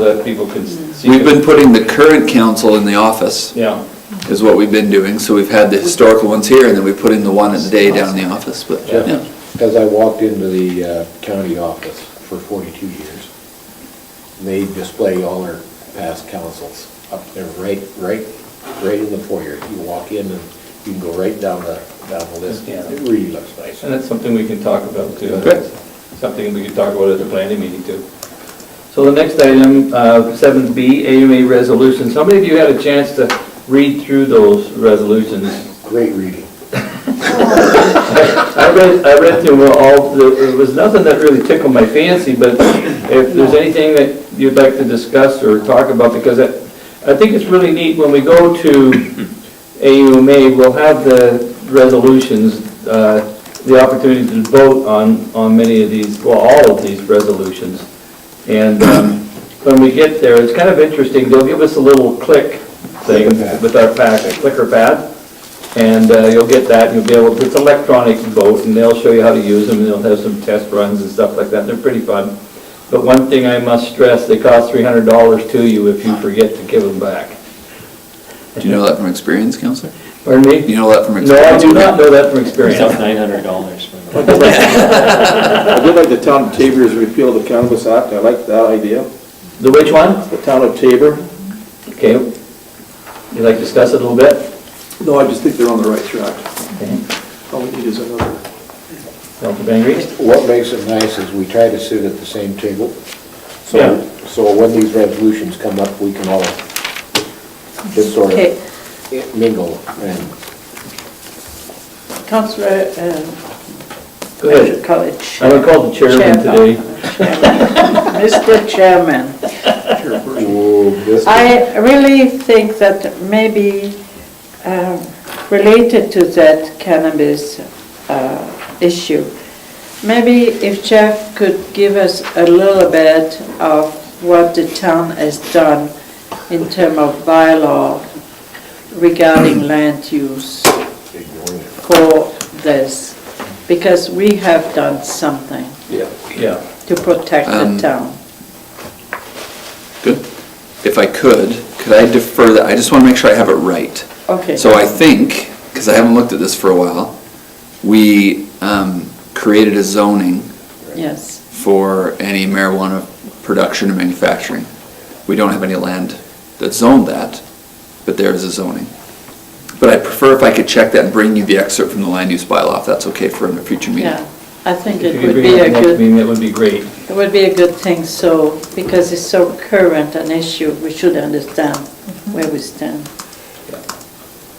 that people could see. We've been putting the current council in the office, Yeah, is what we've been doing, so we've had the historical ones here, and then we put in the one at the day down in the office, but, yeah. Because I walked into the uh, county office for 42 years, they display all our past councils up there, right, right, right in the foyer. You walk in and you can go right down the, down the list. Yeah. It really looks nice. and that's something we can talk about too. Good. Something we could talk about at the planning meeting too. So the next item, uh, 7B, AMA resolutions. How many of you had a chance to read through those resolutions? Great reading. I read, I read through all, there was nothing that really tickled my fancy, but if there's anything that you'd like to discuss or talk about, because I, I think it's really neat, when we go to AUMA, we'll have the resolutions, uh, the opportunity to vote on, on many of these, well, all of these resolutions. And um, when we get there, it's kind of interesting, they'll give us a little click thing with our packet, clicker pad. And uh, you'll get that, and you'll be able, it's electronic vote, and they'll show you how to use them, and they'll have some test runs and stuff like that, they're pretty fun. But one thing I must stress, they cost three hundred dollars to you if you forget to give them back. Do you know that from experience, counselor? Pardon You me? know that from No, I experience? do not know that from It's experience. up nine hundred dollars. I did like the town of Tabor's repeal of the cannabis act, I like that idea. The which one? The town of Tabor, Okay. You'd like to discuss it a little bit? no, I just think they're on the right track. All we need is another. Councilor Van Green? What makes it nice is we try to sit at the same table. Yeah. So, so when these resolutions come up, we can all just sort Okay, of mingle and Councillor, um, Go ahead. College. uh, I'm gonna call the chairman today. Mr. Chairman, Ooh, this- I really think that maybe um, related to that cannabis uh, issue, maybe if Jeff could give us a little bit of what the town has done in terms of bylaw regarding land use. for this, because we have done something Yeah. to protect the Um, town. Good. If I could, could I defer that? I just want to make sure I have it right. Okay. So I think, because I haven't looked at this for a while, we um, created a zoning Yes, for any marijuana production and manufacturing. We don't have any land that's zoned that, but there is a zoning. But I prefer if I could check that and bring you the excerpt from the land use bylaw, if that's okay for a future meeting. yeah. I think If it you could would bring be it to a the next good, meeting, that would be great. it would be a good thing, so, because it's so current an issue, we should understand where we stand.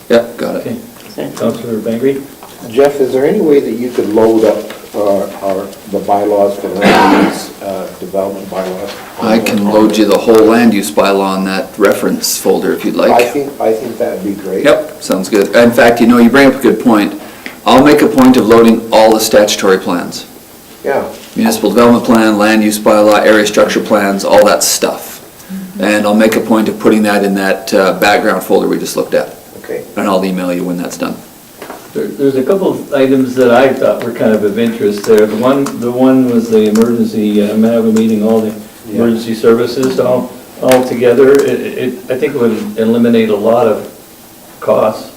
Yep, got Okay. it. Thank you. Councilor Van Green? Jeff, is there any way that you could load up uh, our, the bylaws for land use, uh, development bylaws? I can load you the whole land use bylaw in that reference folder if you'd like. I think, I think that'd be great. Yep, sounds good. In fact, you know, you bring up a good point. I'll make a point of loading all the statutory plans. Yeah, Municipal development plan, land use bylaw, area structure plans, all that stuff. And I'll make a point of putting that in that uh, background folder we just looked at. okay. And I'll email you when that's done. There- There's a couple of items that I thought were kind of of interest there. The one, the one was the emergency, uh, I'm having a meeting, all the Yeah. emergency services all, all together. It, it, I think it would eliminate a lot of costs,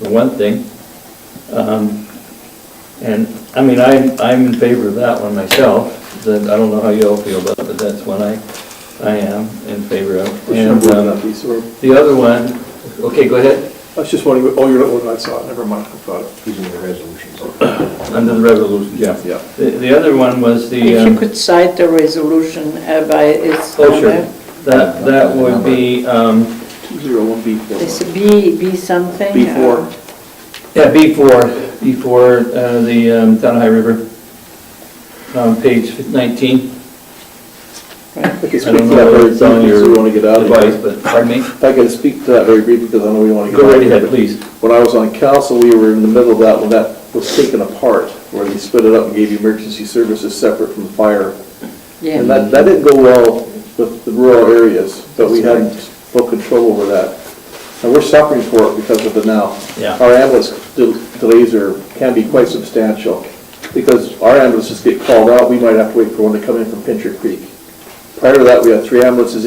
for one thing. Um, And, I mean, I'm, I'm in favor of that one myself, that, I don't know how you all feel about it, but that's one I, I am in favor of. And um, I the other one, okay, go ahead, was just wondering, oh, you're not one I saw, never mind, I thought it. These are the resolutions. under the resolution, yeah. Yeah. The, the other one was the, If you um, could cite the resolution uh, by its oh, sure. number, that, that would be, um, 201B4. it's B, B something? uh, B4, yeah, B four, B four, uh, the, um, Town of High River, um, page nineteen. I can speak I to that don't know whether very it's on briefly, your so we want to get out of device, here. but, pardon me? If I can speak to that very briefly, because I know we want to get Go out of right here. ahead, but please. When I was on council, we were in the middle of that, when that was taken apart, where they split it up and gave you emergency services separate from fire. Yeah. And that, that didn't go well with the rural areas, but we had full control over that. And we're suffering for it because of it now. Yeah. Our ambulance del- delays are, can be quite substantial, because our ambulances get called out, we might have to wait for one to come in from Pincher Creek. Prior to that, we had three ambulances